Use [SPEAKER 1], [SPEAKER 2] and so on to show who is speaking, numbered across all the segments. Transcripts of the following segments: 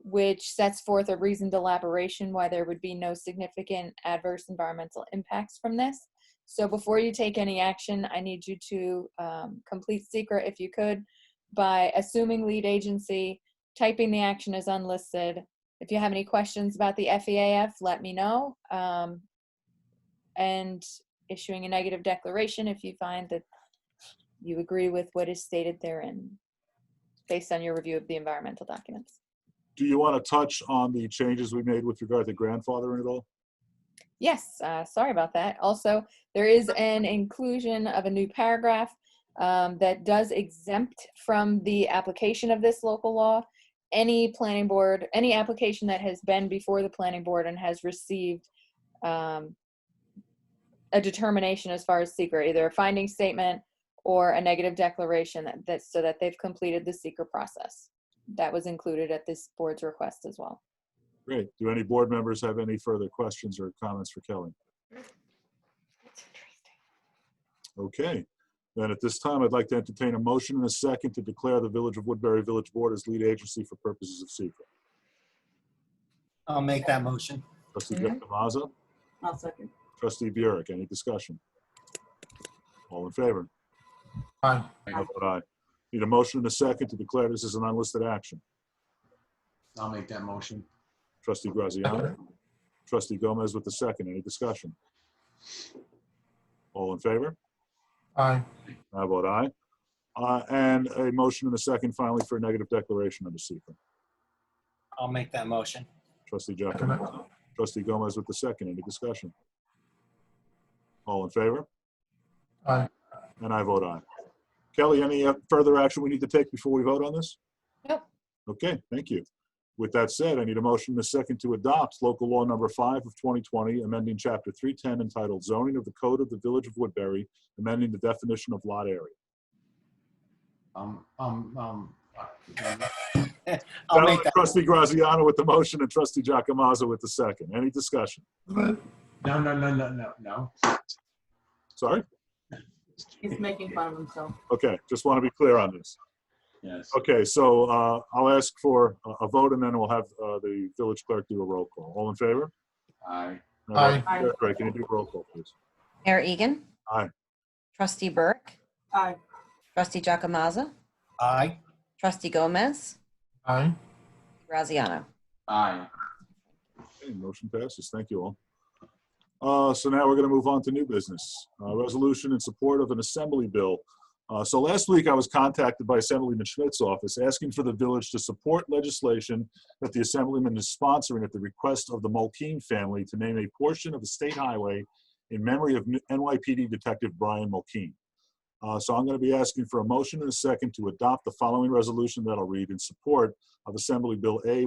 [SPEAKER 1] which sets forth a reasoned elaboration why there would be no significant adverse environmental impacts from this. So before you take any action, I need you to um, complete secret if you could by assuming lead agency, typing the action as unlisted. If you have any questions about the FEAF, let me know. Um, and issuing a negative declaration if you find that you agree with what is stated therein based on your review of the environmental documents.
[SPEAKER 2] Do you want to touch on the changes we made with regard to grandfathering at all?
[SPEAKER 1] Yes, uh, sorry about that. Also, there is an inclusion of a new paragraph um, that does exempt from the application of this local law any planning board, any application that has been before the planning board and has received um, a determination as far as secret, either a finding statement or a negative declaration that, that so that they've completed the secret process. That was included at this board's request as well.
[SPEAKER 2] Great. Do any board members have any further questions or comments for Kelly? Okay, then at this time, I'd like to entertain a motion and a second to declare the Village of Woodbury Village Board as lead agency for purposes of secret.
[SPEAKER 3] I'll make that motion.
[SPEAKER 2] Trustee
[SPEAKER 1] Mhm.
[SPEAKER 2] Victomaza,
[SPEAKER 4] I'll second.
[SPEAKER 2] trustee Burek, any discussion? All in favor?
[SPEAKER 3] Aye.
[SPEAKER 2] I vote aye. Need a motion and a second to declare this as an unlisted action.
[SPEAKER 5] I'll make that motion.
[SPEAKER 2] Trustee Graziano, trustee Gomez with the second, any discussion? All in favor?
[SPEAKER 3] Aye.
[SPEAKER 2] I vote aye. Uh, And a motion and a second finally for a negative declaration under secret.
[SPEAKER 3] I'll make that motion.
[SPEAKER 2] Trustee Giacomo. Trustee Gomez with the second. Any discussion? All in favor?
[SPEAKER 3] Aye.
[SPEAKER 2] And I vote aye. Kelly, any uh, further action we need to take before we vote on this?
[SPEAKER 1] Nope.
[SPEAKER 2] Okay, thank you. With that said, I need a motion and a second to adopt local law number five of 2020, amending chapter 310 entitled zoning of the code of the village of Woodbury, amending the definition of lot area.
[SPEAKER 5] Um, um, um, uh,
[SPEAKER 3] I'll make that,
[SPEAKER 2] Trustee Graziano with the motion and trustee Giacomazzo with the second. Any discussion?
[SPEAKER 5] no, no, no, no, no, no.
[SPEAKER 2] Sorry?
[SPEAKER 4] He's making fun of himself.
[SPEAKER 2] Okay, just want to be clear on this.
[SPEAKER 5] Yes.
[SPEAKER 2] Okay, so uh, I'll ask for a- a vote, and then we'll have uh, the village clerk do a roll call. All in favor?
[SPEAKER 5] Aye.
[SPEAKER 3] Aye.
[SPEAKER 2] Clerk, Ray, Can you do a roll call, please?
[SPEAKER 6] Mayor Egan.
[SPEAKER 2] Aye.
[SPEAKER 6] Trustee Burke.
[SPEAKER 4] Aye.
[SPEAKER 6] Trustee Jacomaza.
[SPEAKER 3] aye.
[SPEAKER 6] Trustee Gomez.
[SPEAKER 3] Aye.
[SPEAKER 6] Graziano.
[SPEAKER 5] Aye.
[SPEAKER 2] Okay, Motion passes. Thank you all. Uh, So now we're going to move on to new business. Uh, Resolution in support of an assembly bill. Uh, So last week, I was contacted by Assemblyman Schmidt's office asking for the village to support legislation that the Assemblyman is sponsoring at the request of the Mulkeen family to name a portion of a state highway in memory of NYPD Detective Brian Mulkeen. Uh, So I'm going to be asking for a motion and a second to adopt the following resolution that I'll read in support of Assembly Bill A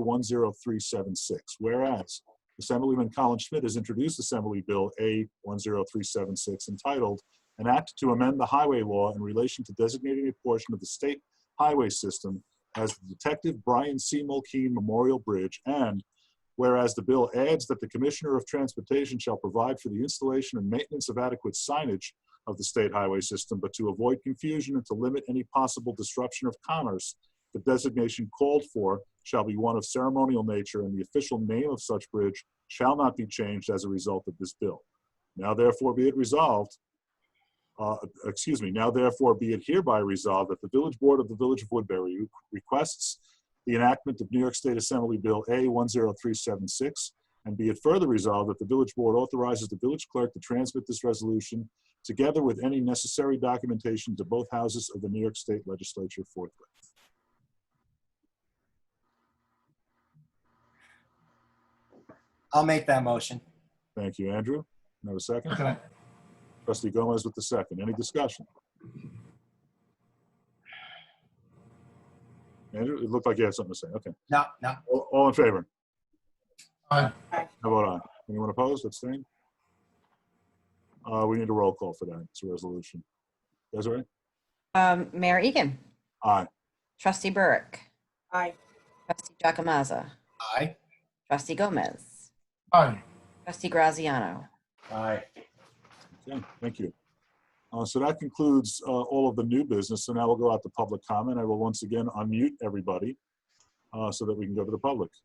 [SPEAKER 2] 10376. Whereas Assemblyman Colin Schmidt has introduced Assembly Bill A 10376 entitled, An Act to Amend the Highway Law in Relation to Designating a Portion of the State Highway System as the Detective Brian C. Mulkeen Memorial Bridge, and whereas the bill adds that the Commissioner of Transportation shall provide for the installation and maintenance of adequate signage of the state highway system, but to avoid confusion and to limit any possible disruption of commerce, the designation called for shall be one of ceremonial nature, and the official name of such bridge shall not be changed as a result of this bill. Now therefore be it resolved, uh, excuse me, now therefore be it hereby resolved that the Village Board of the Village of Woodbury requests the enactment of New York State Assembly Bill A 10376, and be it further resolved that the Village Board authorizes the village clerk to transmit this resolution together with any necessary documentation to both houses of the New York State Legislature forthwith.
[SPEAKER 3] I'll make that motion.
[SPEAKER 2] Thank you, Andrew. Can I Have a second? Trustee Gomez with the second. Any discussion? Andrew, it looked like you had something to say. Okay.
[SPEAKER 3] No, no.
[SPEAKER 2] All all in favor?
[SPEAKER 3] Aye.
[SPEAKER 4] Aye.
[SPEAKER 2] How about aye? Anyone opposed, abstain? Uh, we need a roll call for that. It's a resolution. Desiree?
[SPEAKER 6] Um, Mayor Egan.
[SPEAKER 2] Aye.
[SPEAKER 6] Trustee Burke.
[SPEAKER 4] Aye.
[SPEAKER 6] Trustee Jacomaza.
[SPEAKER 3] Aye.
[SPEAKER 6] Trustee Gomez.
[SPEAKER 3] Aye.
[SPEAKER 6] Trustee Graziano.
[SPEAKER 5] Aye.
[SPEAKER 2] Okay, thank you. Uh, so that concludes, uh, all of the new business. So now we'll go out to public comment. I will once again unmute everybody. uh, so that we can go to the public.